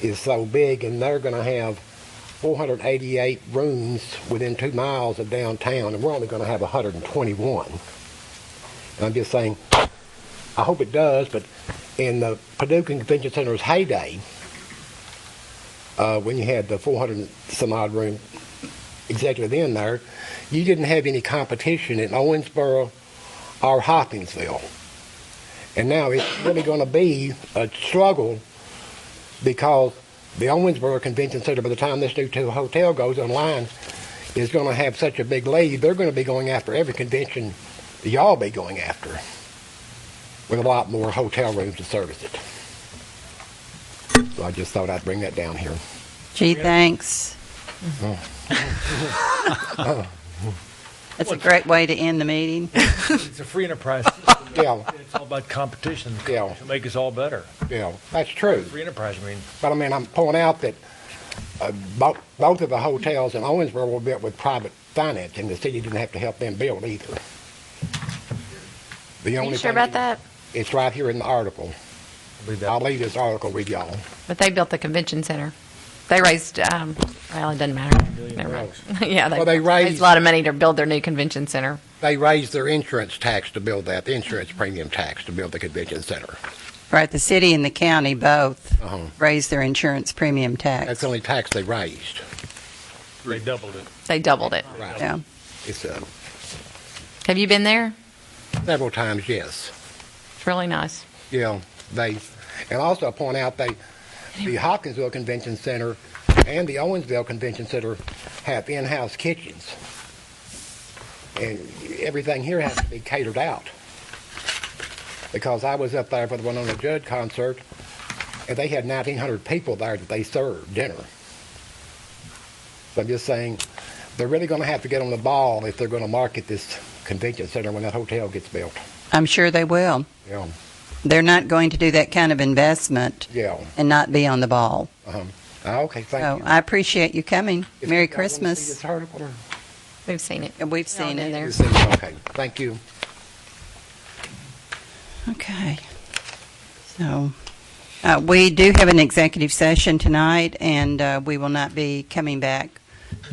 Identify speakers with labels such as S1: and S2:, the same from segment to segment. S1: is so big, and they're going to have 488 rooms within two miles of downtown, and we're only going to have 121. And I'm just saying, I hope it does, but in the Paducah Convention Center's heyday, uh, when you had the 400 and some odd room executive in there, you didn't have any competition in Owensboro or Hopkinsville. And now it's really going to be a struggle because the Owensboro Convention Center, by the time this new to- hotel goes online, is going to have such a big lead. They're going to be going after every convention that y'all be going after with a lot more hotel rooms to service it. So I just thought I'd bring that down here.
S2: Gee, thanks. That's a great way to end the meeting.
S3: It's a free enterprise system.
S1: Yeah,
S3: It's all about competition.
S1: Yeah.
S3: To make us all better.
S1: yeah, that's true.
S3: Free enterprise, I mean,
S1: But I mean, I'm pointing out that uh, both, both of the hotels in Owensboro were built with private finance, and the city didn't have to help them build either. The
S4: Are
S1: only
S4: you
S1: thing-
S4: sure about that?
S1: It's right here in the article.
S3: I believe
S1: I'll
S3: that.
S1: leave this article with y'all.
S4: But they built the convention center. They raised, um, well, it doesn't matter. Never mind. Yeah,
S1: Well, they
S4: they
S1: raised-
S4: raised a lot of money to build their new convention center.
S1: They raised their insurance tax to build that, the insurance premium tax to build the convention center.
S2: Right, the city and the county both
S1: Uh-huh.
S2: raised their insurance premium
S1: That's
S2: tax.
S1: the only tax they raised.
S3: They doubled it.
S4: They doubled it.
S1: Right.
S2: Yeah.
S1: It's uh,
S4: Have you been there?
S1: several times, yes.
S4: It's really nice.
S1: you know, they, and also I point out they, the Hopkinsville Convention Center and the Owensville Convention Center have in-house kitchens. And everything here has to be catered out. Because I was up there for the Winona Judd concert, and they had 1,900 people there that they served dinner. So I'm just saying, they're really going to have to get on the ball if they're going to market this convention center when that hotel gets built.
S2: I'm sure they will.
S1: Yeah,
S2: They're not going to do that kind of investment
S1: yeah.
S2: and not be on the ball.
S1: Um, ah, okay, thank
S2: So
S1: you.
S2: I appreciate you coming.
S1: If
S2: Merry
S1: y'all wanna see this
S2: Christmas.
S1: article or-
S4: We've seen it.
S2: And We've seen
S4: Yeah,
S2: it.
S4: there.
S1: You see it? Okay, thank you.
S2: Okay. So, uh, we do have an executive session tonight, and uh, we will not be coming back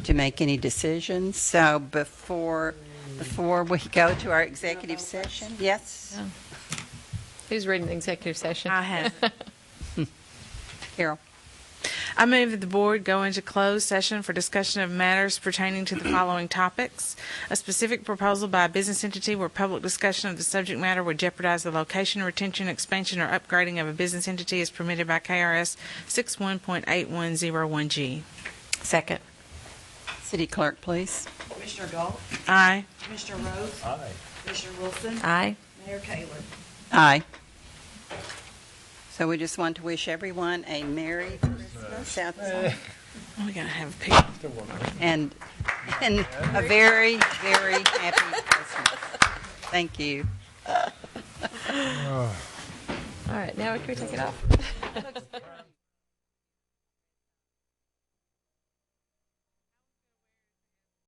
S2: to make any decisions. So before, before we go to our executive session, yes,
S4: Who's reading the executive session?
S5: I have.
S2: Carol?
S5: I move that the board go into closed session for discussion of matters pertaining to the following topics. A specific proposal by a business entity where public discussion of the subject matter would jeopardize the location, retention, expansion, or upgrading of a business entity is permitted by KRS 61.8101G.
S4: Second.
S2: City clerk, please.
S6: Commissioner Galt,
S5: Aye.
S6: Commissioner Rhodes,
S3: Aye.
S6: Commissioner Wilson,
S4: Aye.
S6: Mayor Taylor.
S2: Aye. So we just want to wish everyone a Merry Christmas outside
S5: We gotta have people.
S2: and, and a very, very happy Christmas. Thank you.
S4: All right, now can we take it off?